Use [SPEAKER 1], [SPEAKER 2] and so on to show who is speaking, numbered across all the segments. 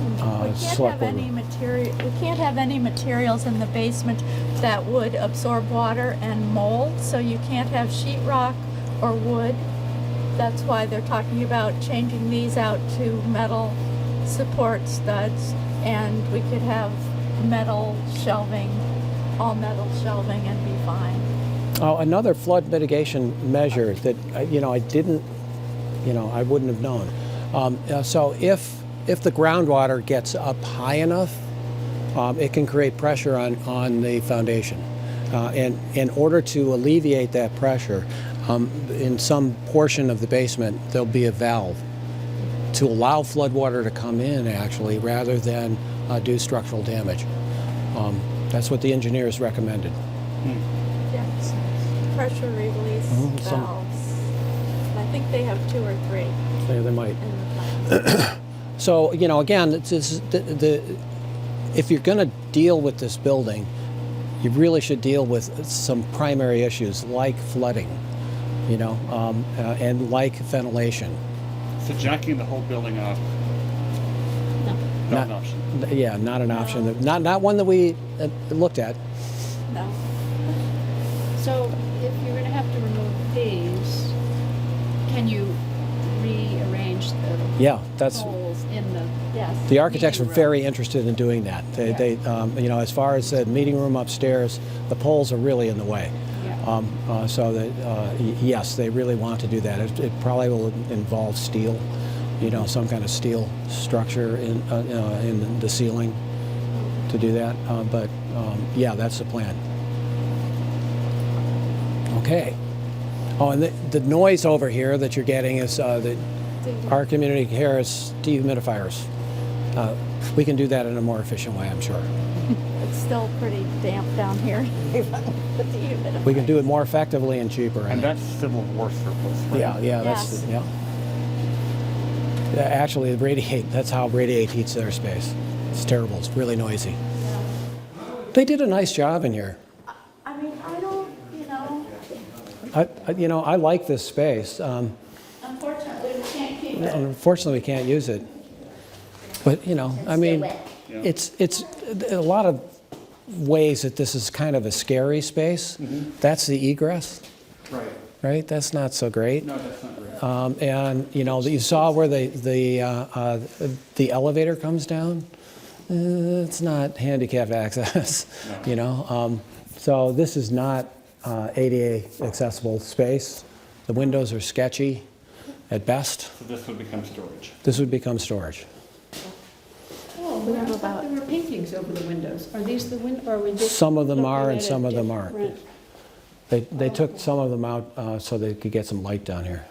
[SPEAKER 1] select
[SPEAKER 2] can't have
[SPEAKER 1] board.
[SPEAKER 2] any material, we can't have any materials in the basement that would absorb water and mold, so you can't have sheet rock or wood. That's why they're talking about changing these out to metal support studs, and we could have metal shelving, all metal shelving and be fine.
[SPEAKER 1] Oh, another flood mitigation measure that, uh, you know, I didn't, you know, I wouldn't have known. Um, uh, So if, if the groundwater gets up high enough, um, it can create pressure on, on the foundation. Uh, And in order to alleviate that pressure, um, in some portion of the basement, there'll be a valve to allow floodwater to come in, actually, rather than uh, do structural damage. Um, That's what the engineers recommended.
[SPEAKER 2] Yes. Pressure release
[SPEAKER 1] Mhm, some-
[SPEAKER 2] valves. And I think they have two or three
[SPEAKER 1] Yeah, They might.
[SPEAKER 2] in the plan.
[SPEAKER 1] So, you know, again, it's, it's the, the, if you're going to deal with this building, you really should deal with some primary issues like flooding, you know, um, uh, and like ventilation.
[SPEAKER 3] So jacking the whole building up,
[SPEAKER 1] Not-
[SPEAKER 3] not an option.
[SPEAKER 1] N- Yeah, not an option. that- Not, not one that we uh, looked at.
[SPEAKER 2] No.
[SPEAKER 4] So if you're gonna have to remove these, can you rearrange the
[SPEAKER 1] Yeah, that's.
[SPEAKER 4] holes in the?
[SPEAKER 2] Yes.
[SPEAKER 1] The architects are
[SPEAKER 4] Meeting room.
[SPEAKER 1] very interested in doing that. They,
[SPEAKER 4] Yeah.
[SPEAKER 1] they um, you know, as far as the meeting room upstairs, the poles are really in the way.
[SPEAKER 4] Yeah.
[SPEAKER 1] Um, uh, so that, uh, y- yes, they really want to do that. It, it probably will involve steel, you know, some kind of steel structure in, uh, uh, in the ceiling to do that. Uh, but um, yeah, that's the plan. Okay. Oh, and the, the noise over here that you're getting is uh, that our community care is dehumidifiers. Uh, we can do that in a more efficient way, I'm sure.
[SPEAKER 2] It's still pretty damp down here. But the humid-
[SPEAKER 1] We can do it more effectively and cheaper. I
[SPEAKER 3] And
[SPEAKER 1] think.
[SPEAKER 3] that's civil war surplus. right?
[SPEAKER 1] Yeah, yeah, that's, yeah.
[SPEAKER 2] Yes.
[SPEAKER 1] Yeah, Actually, the radiate, that's how radiate heats their space. It's terrible, it's really noisy. They did a nice job in here.
[SPEAKER 2] I mean, I don't, you know,
[SPEAKER 1] I, I- you know, I like this space. Um,
[SPEAKER 2] unfortunately, we can't keep it.
[SPEAKER 1] Unfortunately, we can't use it. But, you know, I mean, it's, it's, a lot of ways that this is kind of a scary space. That's the egress,
[SPEAKER 3] Mm-hmm. Right.
[SPEAKER 1] right? That's not so great.
[SPEAKER 3] No, that's not right.
[SPEAKER 1] Um, And, you know, you saw where the, the, uh, uh, the elevator comes down? Uh, It's not handicap access, you know? Um, So this is not uh, ADA accessible space. The windows are sketchy at best.
[SPEAKER 3] So this would become storage.
[SPEAKER 1] This would become storage.
[SPEAKER 4] Oh,
[SPEAKER 2] We have
[SPEAKER 4] I thought
[SPEAKER 2] about-
[SPEAKER 4] there were paintings over the windows. Are these the win, or were just?
[SPEAKER 1] Some of them
[SPEAKER 4] looking
[SPEAKER 1] are and
[SPEAKER 4] at a
[SPEAKER 1] some of them aren't.
[SPEAKER 4] different-
[SPEAKER 1] They, they took some of them out uh, so they could get some light down here.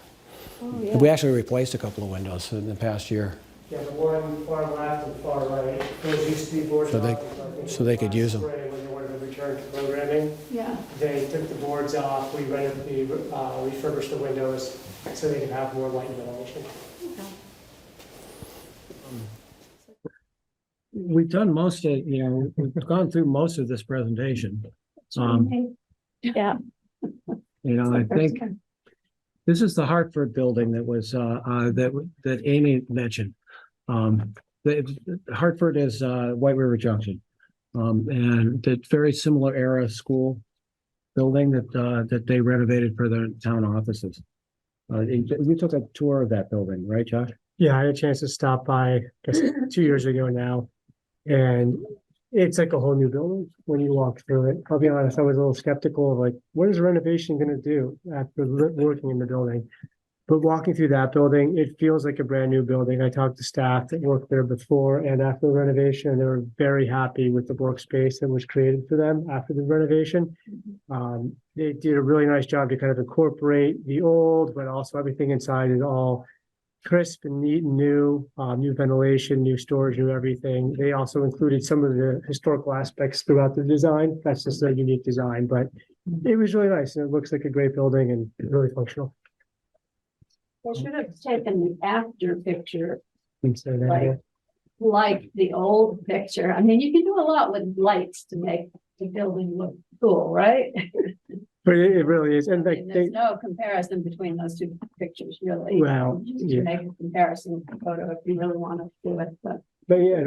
[SPEAKER 4] Oh,
[SPEAKER 1] We
[SPEAKER 4] yeah.
[SPEAKER 1] actually replaced a couple of windows in the past year,
[SPEAKER 5] Yeah, the one far left and far right, those used to be boards.
[SPEAKER 1] So they-
[SPEAKER 5] off, but I think
[SPEAKER 1] so they could
[SPEAKER 5] last
[SPEAKER 1] use 'em.
[SPEAKER 5] spring When they wanted to return to programming,
[SPEAKER 4] Yeah,
[SPEAKER 5] they took the boards off, we rented the, uh, refurbished the windows so they could have more light and ventilation.
[SPEAKER 1] We've done most of, you know, we've gone through most of this presentation. Um,
[SPEAKER 2] Yeah.
[SPEAKER 1] You know, I think
[SPEAKER 4] Okay.
[SPEAKER 1] this is the Hartford building that was, uh, uh, that, that Amy mentioned. Um, the, Hartford is, uh, White River Junction. Um, and the very similar era school building that, uh, that they renovated for their town offices. Uh, you you took a tour of that building, right, Josh?
[SPEAKER 5] Yeah, I had a chance to stop by, I guess, two years ago now. And it's like a whole new building when you walk through it. I'll be honest, I was a little skeptical of like, what is renovation gonna do after li- working in the building? But walking through that building, it feels like a brand new building. I talked to staff that worked there before and after the renovation, they were very happy with the workspace that was created for them after the renovation. Um, they did a really nice job to kind of incorporate the old, but also everything inside is all crisp and neat and new, uh, new ventilation, new storage, new everything. They also included some of the historical aspects throughout the design. That's just their unique design, but it was really nice and it looks like a great building and really functional.
[SPEAKER 4] They should have taken the after picture,
[SPEAKER 5] And so then,
[SPEAKER 4] Right. like the old picture. I mean, you can do a lot with lights to make the building look cool, right?
[SPEAKER 5] But it, it really is, and
[SPEAKER 4] I
[SPEAKER 5] like
[SPEAKER 4] mean,
[SPEAKER 5] they,
[SPEAKER 4] There's no comparison between those two pictures, really.
[SPEAKER 5] Well,
[SPEAKER 4] You can
[SPEAKER 5] yeah.
[SPEAKER 4] Make a comparison photo if you really want to do it, but.
[SPEAKER 5] but yeah,